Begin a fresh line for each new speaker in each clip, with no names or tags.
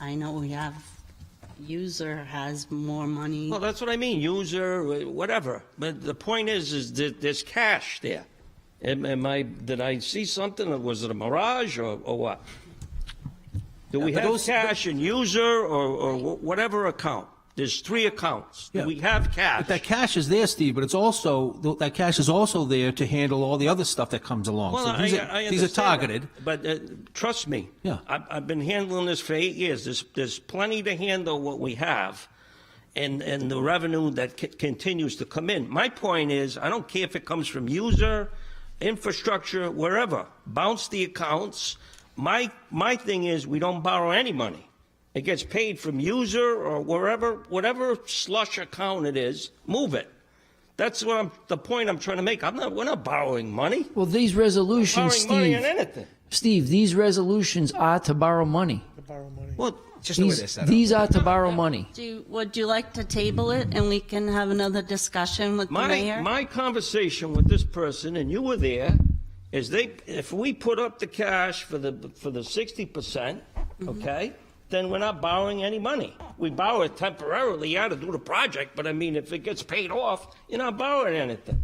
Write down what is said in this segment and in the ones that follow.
I know we have, user has more money.
Well, that's what I mean, user, whatever. But the point is, is that there's cash there. Am, am I, did I see something, or was it a mirage, or, or what? Do we
Yeah, but
have
those-
cash in user or, or wh- whatever account? There's three accounts. Do
Yeah.
we have
But that
cash?
cash is there, Steve, but it's also, th- that cash is also there to handle all the other stuff that comes along.
Well,
So
I,
these
I
are- These are
understand that.
targeted.
But uh, trust me.
Yeah.
I've, I've been handling this for eight years. There's, there's plenty to handle what we have and, and the revenue that c- continues to come in. My point is, I don't care if it comes from user, infrastructure, wherever. Bounce the accounts. My, my thing is, we don't borrow any money. It gets paid from user or wherever, whatever slush account it is, move it. That's what I'm, the point I'm trying to make. I'm not, we're not borrowing money.
Well, these resolutions,
Borrowing money on
Steve.
anything.
Steve, these resolutions are to borrow money.
Well,
Just the way they're
These,
set up.
these are to borrow money.
Do, you- would you like to table it and we can have another discussion with the
my,
mayor?
my conversation with this person, and you were there, is they, if we put up the cash for the, for the sixty percent, okay? Then we're not borrowing any money. We borrow it temporarily, you had to do the project, but I mean, if it gets paid off, you're not borrowing anything.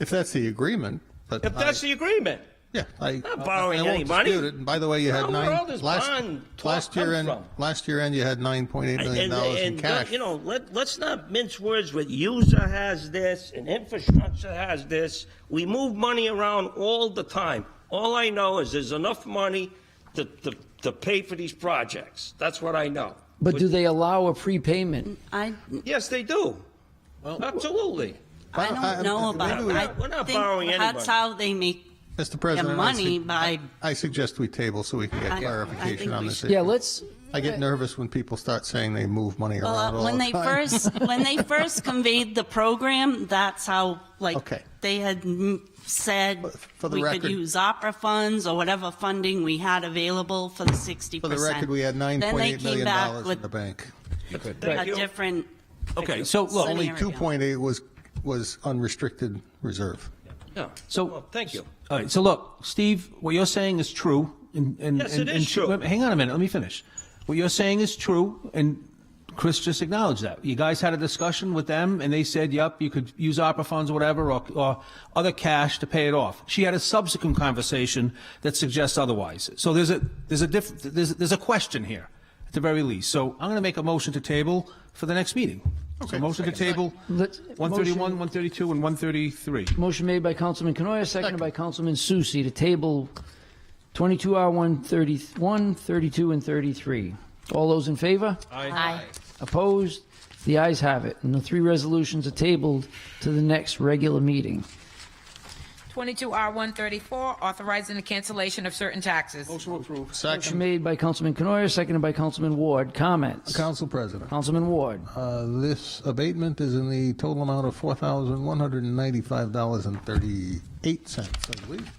If that's the agreement, but
If that's
I,
the agreement.
yeah, I,
not
I- I
borrowing
won't
any money.
dispute it. And by the way, you
Well,
had
where
nine
all this
last
bond talk
last year
come
end.
from?
Last year end, you had nine point eight million
And,
dollars in
and,
cash.
you know, let, let's not mince words with user has this and infrastructure has this. We move money around all the time. All I know is there's enough money to, to, to pay for these projects. That's what I know.
But do they allow a prepayment?
I,
Yes, they do. Absolutely.
I
Well, I-
don't know
maybe
about,
we-
I
We're not borrowing
think that's
anybody.
how they make
Mr.
their
President, I
money
sug-
by,
I suggest we table so we can
I-
get
I
clarification
think
on
we
this.
should.
issue.
Yeah, let's.
I get nervous when people start saying they move money around
well,
all
when
the
they
time.
first, when they first conveyed the program, that's how, like,
Okay.
they had mm, said
But for the
we could
record-
use opera funds or whatever funding we had available for the 60%.
For the record, we had nine point eight million dollars in the bank.
Then they came
Thank
back with a
you.
different.
Okay, so look,
Sunny
Only
area.
two point eight was was unrestricted reserve.
Yeah.
So-
Well, thank you.
all right, so look, Steve, what you're saying is true. and- and-
Yes, it
and-
is
and-
true.
wait, Hang on a minute, let me finish. What you're saying is true, and Chris just acknowledged that. You guys had a discussion with them, and they said, yep, you could use opera funds or whatever, or, or other cash to pay it off. She had a subsequent conversation that suggests otherwise. So there's a, there's a diff, there's, there's a question here, at the very least. So I'm going to make a motion to table for the next meeting. So
Okay,
motion to table
Let's-
131, 132, and 133.
Motion made by Councilman Canoia, seconded by Councilman Susie to table 22R1, 31, 32, and 33. All those in favor?
Aye.
Opposed? The ayes have it, and the three resolutions are tabled to the next regular meeting.
22R134, authorizing the cancellation of certain taxes.
Motion
Second,
made by Councilman Canoia, seconded by Councilman Ward. Comments?
Council President.
Councilman Ward.
Uh, This abatement is in the total amount of $4,195.38, I believe.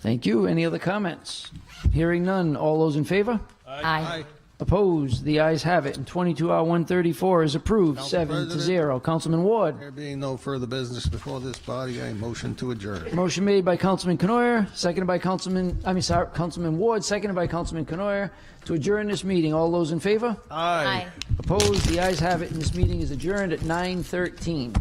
Thank you. Any other comments? Hearing none. All those in favor?
Aye.
Opposed? The ayes have it, and 22R134 is approved,
Council
seven to
President.
zero. Councilman Ward.
There being no further business before this body, I motion to adjourn.
Motion made by Councilman Canoyer, seconded by Councilman, I mean, sorry, Councilman Ward, seconded by Councilman Canoyer to adjourn this meeting. All those in favor?
Aye.
Opposed? The ayes have it, and this meeting is adjourned at 9:13.